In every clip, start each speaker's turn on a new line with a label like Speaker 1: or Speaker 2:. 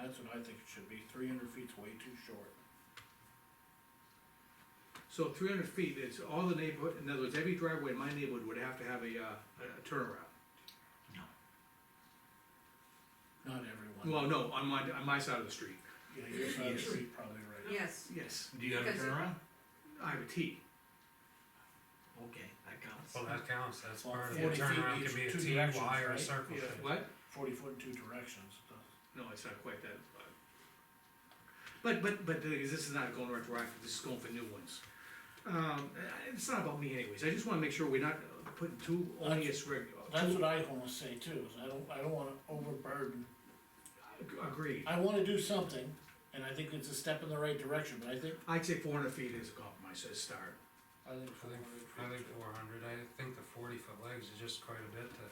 Speaker 1: I think it should be, three hundred feet's way too short.
Speaker 2: So three hundred feet, it's all the neighborhood, in other words, every driveway in my neighborhood would have to have a, uh, a turnaround.
Speaker 1: Not everyone.
Speaker 2: Well, no, on my, on my side of the street,
Speaker 1: Yeah, your side of the
Speaker 3: Yes.
Speaker 1: street probably right.
Speaker 4: Yes,
Speaker 2: yes,
Speaker 3: Do you have a
Speaker 4: Because it-
Speaker 3: turnaround?
Speaker 2: I have a T.
Speaker 3: Okay, that counts.
Speaker 5: Well, that counts, that's
Speaker 1: Well,
Speaker 5: part of
Speaker 1: 40
Speaker 5: it,
Speaker 1: feet
Speaker 5: turnaround
Speaker 1: each,
Speaker 5: can be a
Speaker 1: two
Speaker 5: T,
Speaker 1: directions,
Speaker 5: Y, or a
Speaker 1: right?
Speaker 5: circle
Speaker 2: Yeah,
Speaker 5: shape.
Speaker 2: what?
Speaker 1: Forty foot in two directions, it does.
Speaker 2: No, it's not quite that. uh, But, but, but the thing is, this is not going retroactive, this is going for new ones. Um, I- it's not about me anyways, I just wanna make sure we're not uh, putting too onerous reg,
Speaker 1: That's what I wanna say too, is I don't, I don't wanna overburden.
Speaker 2: agreed.
Speaker 1: I wanna do something, and I think it's a step in the right direction, but I think,
Speaker 2: I'd say four hundred feet is a compromise, as a start.
Speaker 1: I think.
Speaker 5: I think, I think four hundred, I think the forty foot legs is just quite a bit to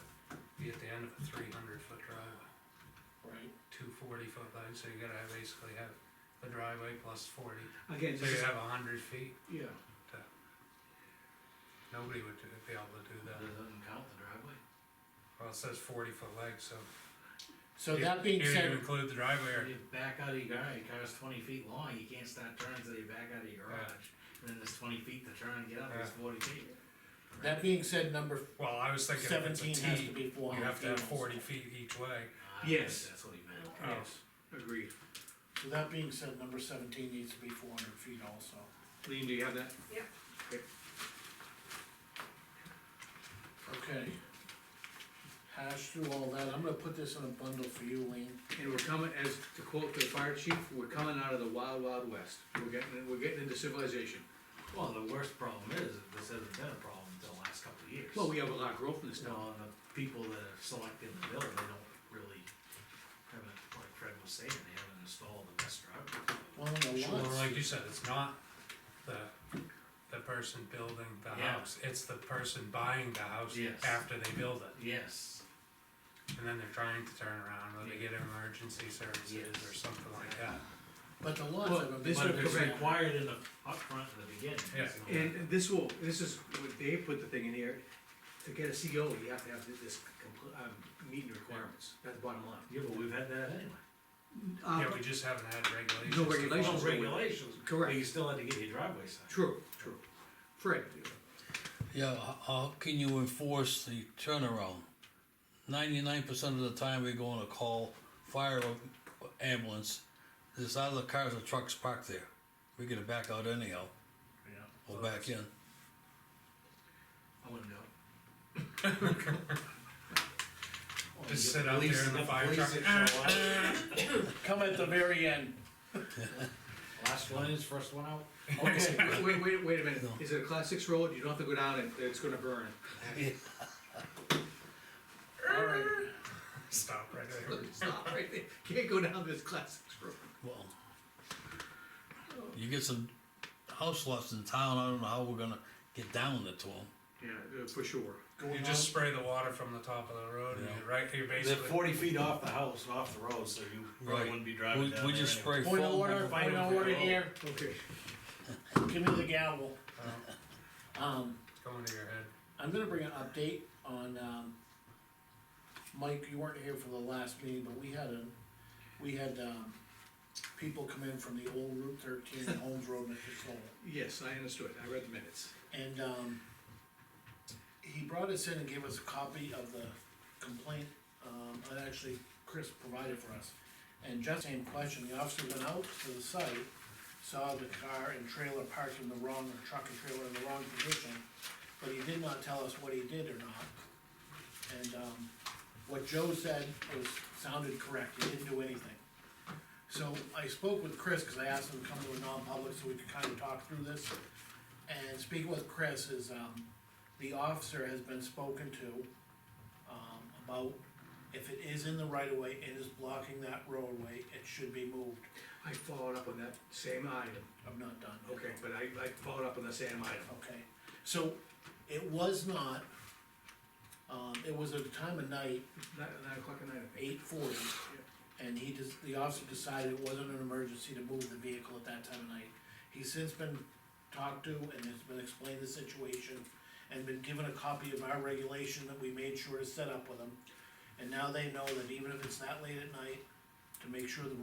Speaker 5: be at the end of a three hundred foot driveway.
Speaker 1: Right,
Speaker 5: Two forty foot legs, so you gotta have- basically have the driveway plus forty,
Speaker 2: Again,
Speaker 5: so
Speaker 2: this
Speaker 5: you
Speaker 2: is,
Speaker 5: have a hundred feet,
Speaker 2: yeah,
Speaker 5: nobody would do- be able to do
Speaker 3: That
Speaker 5: that.
Speaker 3: doesn't count the driveway?
Speaker 5: Well, it says forty foot legs, so.
Speaker 1: so
Speaker 5: you-
Speaker 1: that being
Speaker 5: you either
Speaker 1: said,
Speaker 5: Include the driveway or
Speaker 3: You back out of your yard, your car's twenty feet long, you can't start turning till you back out of your
Speaker 5: Yeah.
Speaker 3: garage, and then there's twenty feet to turn and get up, it's forty feet.
Speaker 1: that being said, number
Speaker 5: Well, I was thinking if it's a
Speaker 1: seventeen has to
Speaker 5: T,
Speaker 1: be four
Speaker 5: you
Speaker 1: hundred feet.
Speaker 5: have to have
Speaker 1: also.
Speaker 5: forty feet each way.
Speaker 3: I think
Speaker 2: Yes.
Speaker 3: That's what he meant.
Speaker 5: Oh.
Speaker 2: yes, agreed.
Speaker 1: So that being said, number seventeen needs to be four hundred feet also.
Speaker 2: Lean, do you have that?
Speaker 4: yep,
Speaker 1: Okay. Hash through all that, I'm gonna put this in a bundle for you, Lean.
Speaker 2: And we're coming, as to quote the fire chief, we're coming out of the wild, wild west, we're getting, we're getting into civilization.
Speaker 3: Well, the worst problem is, that this hasn't been a problem until the last couple of years.
Speaker 2: Well, we have a lot of growth in this
Speaker 3: You
Speaker 2: town.
Speaker 3: know, and the people that are selecting the bill, they don't really, haven't, like Fred was saying, they haven't installed the best driveway.
Speaker 1: Well, in the
Speaker 5: Well,
Speaker 1: lots,
Speaker 5: like you said, it's not the, the person building the
Speaker 3: Yeah.
Speaker 5: house, it's the person buying the house
Speaker 3: Yes.
Speaker 5: after they build it.
Speaker 3: Yes,
Speaker 5: And then they're trying to turn around, or they
Speaker 3: Yeah.
Speaker 5: get emergency services
Speaker 3: Yes.
Speaker 5: or something like that.
Speaker 1: but the lots
Speaker 2: Well,
Speaker 1: have been.
Speaker 2: this
Speaker 3: but
Speaker 2: would
Speaker 3: if it's
Speaker 2: prevent-
Speaker 3: required in the upfront in the beginning.
Speaker 5: Yeah.
Speaker 3: so-
Speaker 2: And this will, this is, what Dave put the thing in here, to get a CO, you have to have this, compl- um, meeting requirements, that's the bottom line.
Speaker 3: Yeah, but we've had that anyway.
Speaker 2: Uh,
Speaker 5: Yeah, we just haven't had regulations.
Speaker 2: No
Speaker 5: to
Speaker 2: regulations.
Speaker 3: Well,
Speaker 5: follow.
Speaker 3: regulations. But you
Speaker 2: Correct,
Speaker 3: still had to get your driveway signed.
Speaker 2: true, true. Fred,
Speaker 6: Yeah, h- how can you enforce the turnaround? Ninety-nine percent of the time we go on a call, fire or ambulance, there's either cars or trucks parked there. We gotta back out anyhow,
Speaker 1: Yeah.
Speaker 6: or back in.
Speaker 3: I wouldn't know.
Speaker 5: Just sit out there in the fire truck.
Speaker 1: Come at the very end.
Speaker 3: Last one is, first one out.
Speaker 1: Okay,
Speaker 2: wait, wait, wait a minute,
Speaker 6: No.
Speaker 2: is it a class six road, you don't have to go down and it's gonna burn?
Speaker 1: alright.
Speaker 5: Stop right there.
Speaker 2: Stop right there, can't go down this class six road.
Speaker 6: Well, you get some house lots in town, I don't know how we're gonna get down there to them.
Speaker 2: Yeah, uh, for sure.
Speaker 1: Going
Speaker 5: You
Speaker 1: on,
Speaker 5: just spray the water from the top of the road, and
Speaker 6: Yeah.
Speaker 5: you're right, you're
Speaker 3: They're
Speaker 5: basically,
Speaker 3: forty feet off the house, off the road, so you
Speaker 6: Right.
Speaker 3: probably wouldn't be driving
Speaker 6: We-
Speaker 3: down
Speaker 6: We
Speaker 3: there
Speaker 6: just
Speaker 3: anyway.
Speaker 6: spray
Speaker 1: point of
Speaker 6: foam
Speaker 1: order,
Speaker 6: over
Speaker 1: point of
Speaker 3: the
Speaker 1: order
Speaker 3: wall.
Speaker 1: here,
Speaker 2: Okay,
Speaker 1: give me the gavel.
Speaker 5: um,
Speaker 1: Um,
Speaker 5: it's going to your head.
Speaker 1: I'm gonna bring an update on, um, Mike, you weren't here for the last meeting, but we had a, we had, um, people come in from the old Route thirteen, and Holmes Road, and Control.
Speaker 2: yes, I understood, I read the minutes.
Speaker 1: And, um, he brought us in and gave us a copy of the complaint, um, that actually Chris provided for us. And just same question, the officer went out to the site, saw the car and trailer parked in the wrong, or truck and trailer in the wrong position, but he did not tell us what he did or not. And, um, what Joe said was, sounded correct, he didn't do anything. So I spoke with Chris, cause I asked him to come to a non-public so we could kinda talk through this. And speaking with Chris is, um, the officer has been spoken to, um, about if it is in the right of way, it is blocking that roadway, it should be moved.
Speaker 2: I followed up on that same item,
Speaker 1: I'm not done.
Speaker 2: okay, but I, I followed up on the same item.
Speaker 1: Okay, so it was not, um, it was at a time of night,
Speaker 2: Nine, nine o'clock at night, I think.
Speaker 1: eight forty. And he just, the officer decided it wasn't an emergency to move the vehicle at that time of night. He's since been talked to and has been explained the situation and been given a copy of our regulation that we made sure to set up with him. And now they know that even if it's that late at night, to make sure the